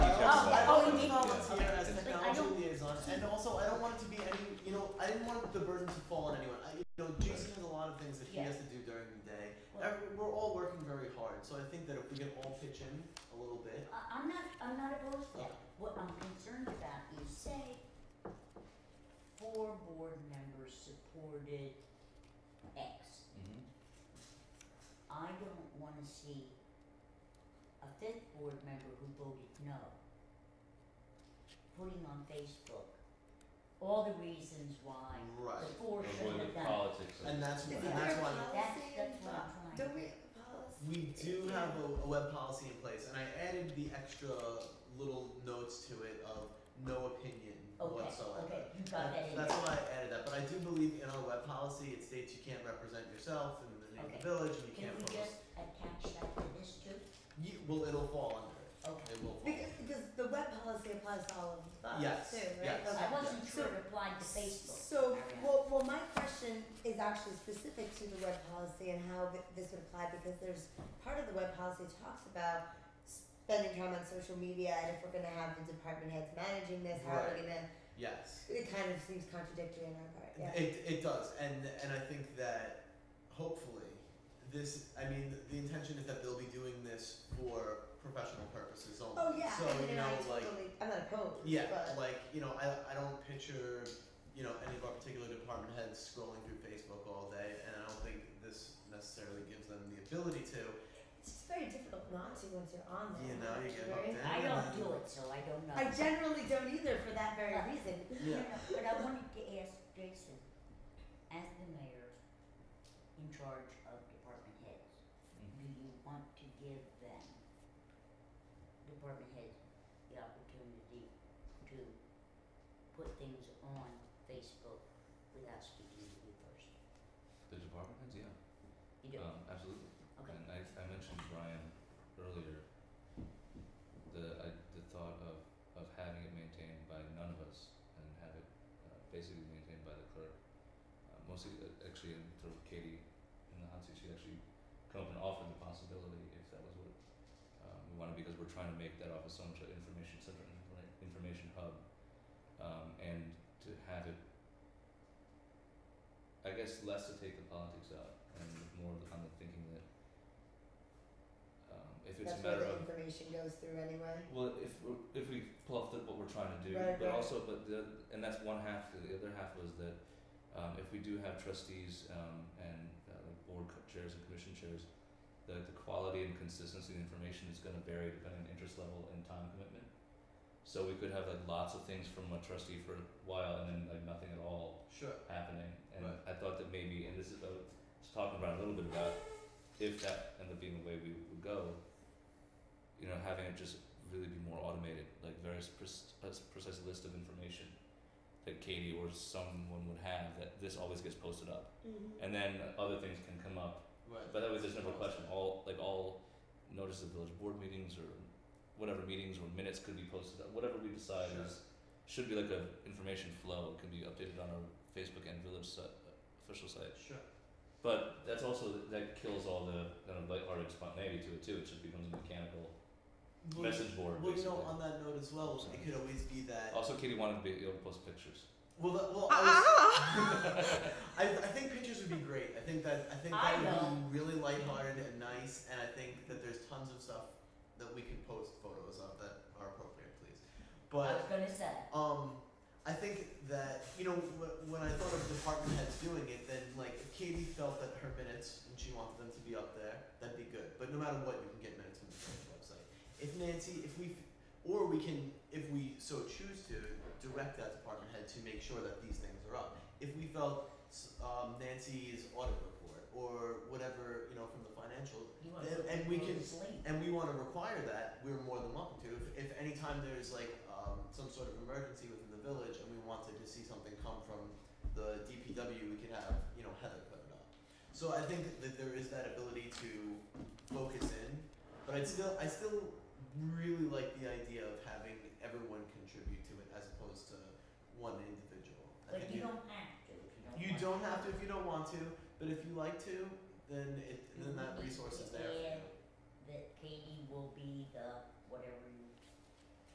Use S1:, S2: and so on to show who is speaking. S1: want the burden to fall on anyone. I, you know, Jason has a lot of things that he
S2: Yeah.
S1: has to do during the day.
S2: Well-
S1: Every, we're all working very hard, so I think that if we can all pitch in a little bit,
S2: I, Uh, I'm not, I'm not opposed to that.
S1: Okay.
S2: What I'm concerned about is say four board members supported X.
S3: Mhm.
S2: I don't wanna see a fifth board member who voted no putting on Facebook all the reasons why
S1: right?
S2: the four
S3: Avoid
S2: shouldn't
S3: the
S2: have done.
S3: politics of
S1: And that's
S4: Is
S1: why,
S4: there
S1: and that's
S4: a
S1: why
S2: That's,
S4: policy
S2: that's
S4: in
S2: what I'm
S4: pla-
S2: trying to
S4: Don't we
S2: do.
S4: have a policy?
S1: we do have a, a web policy in place, and I added the extra little notes to it of no opinion
S2: Okay,
S1: whatsoever.
S2: okay, you got that
S1: That-
S2: in
S1: That's
S2: there.
S1: why I added that, but I do believe in our web policy, it states you can't represent yourself in the name of
S2: Okay.
S1: the village, and you
S2: Can
S1: can't
S2: we
S1: post.
S2: just attach that to this too?
S1: You, well, it'll fall under it,
S2: Okay.
S1: it will fall.
S4: Because, because the web policy applies to all of us
S1: Yes,
S4: too, right?
S1: yes.
S4: Okay.
S2: I wasn't
S4: So-
S2: sure it applied to Facebook.
S4: So, well, well, my question is actually specific to the web policy and how th- this would apply because there's part of the web policy talks about spending time on social media and if we're gonna have the department heads managing this, how are we gonna,
S1: Yes.
S4: it kind of seems contradictory in our part, yeah.
S1: It, it does, and and I think that hopefully this. I mean, the intention is that they'll be doing this for professional purposes only.
S4: Oh, yeah,
S1: So
S4: I mean,
S1: you
S4: and
S1: know,
S4: I
S1: like
S4: totally, I'm not opposed,
S1: yeah,
S4: but,
S1: like you know, I I don't picture you know any of our particular department heads scrolling through Facebook all day, and I don't think this necessarily gives them the ability to.
S4: it's just very difficult not to once you're on there.
S1: You know, you get
S4: Right?
S1: hooked in.
S2: I don't
S1: and-
S2: do it, so I don't know.
S4: I generally don't either for that very
S2: Uh,
S4: reason.
S2: No,
S1: Yeah.
S2: no, but I wanted to ask Jason, as the mayor in charge of department heads, do you want to give them, department heads, the opportunity to put things on Facebook without speaking to you first?
S3: the department heads, yeah,
S2: You do,
S1: Uh,
S3: um, absolutely.
S2: okay,
S3: And I, I mentioned Brian earlier, the, I, the thought of, of having it maintained by none of us and have it uh, basically maintained by the clerk. Uh, mostly, uh, actually, and through Katie in the hot seat, she actually come up and offered the possibility if that was what um, we wanted, because we're trying to make that office so much an information center, an informa- information hub, um, and to have it, I guess, less to take the politics out and more on the thinking that um, if it's
S4: That's
S3: a
S4: where
S3: matter
S4: the
S3: of
S4: information goes through anyway.
S3: well, if we're- if we pull off the, what we're trying to do,
S4: Right,
S3: but
S4: right.
S3: also, but the and that's one half. The other half was that um, if we do have trustees um, and uh, like board co- chairs and commission chairs, that the quality and consistency of the information is going to vary depending on interest level and time commitment. So we could have like lots of things from a trustee for a while, and then like nothing at all
S1: Sure.
S3: happening. And
S1: Right.
S3: I thought that maybe, and this is, I was talking about a little bit about if that ended up being the way we would go, you know, having it just really be more automated, like very pres- pres- precise list of information that Katie or someone would have that this always gets posted up.
S4: Mm-hmm.
S3: And then other things can come up.
S1: Right.
S3: But that way there's never a question. All, like all notices of village board meetings or whatever meetings or minutes could be posted up. Whatever we decide
S1: Sure.
S3: is should be like a information flow. It can be updated on our Facebook and village si- official site.
S1: Sure.
S3: But that's also that kills all the kind of lighthearted spontaneity to it too. It just becomes a mechanical
S1: Well,
S3: message board.
S1: Well, you
S3: basically.
S1: know, on that note as well, it could always be that.
S3: also, Katie wanted to be able to post pictures.
S1: Well, that, well, I was, I, I think pictures would be great. I think that I think
S2: I
S1: that
S2: know.
S1: would be really lighthearted and nice, and I think that there's tons of stuff that we can post photos of that are appropriate, please.
S2: I
S1: But
S2: was gonna say,
S1: um, I think that you know wh- when I thought of department heads doing it, then like if Katie felt that her minutes and she wanted them to be up there, that'd be good. But no matter what, you can get minutes from the village website. If Nancy, if we, f- or we can, if we so choose to, direct that department head to make sure that these things are up. If we felt s- um, Nancy's audit report or whatever you know from the financial
S2: you wanna
S1: And-
S2: put
S1: and we
S2: people to
S1: can-
S2: sleep.
S1: and we want to require that, we're more than welcome to. If, if any time there's like um, some sort of emergency within the village and we wanted to see something come from the DPW, we could have, you know, Heather put it up. So I think that there is that ability to focus in, but I'd still, I still really like the idea of having everyone contribute to it as opposed to one individual. I
S2: But
S1: think
S2: you don't have to if you don't
S1: you
S2: want to.
S1: don't have to if you don't want to, but if you like
S2: Mm-hmm.
S1: to, then it, then that resource is there. for you.
S2: that Katie will be the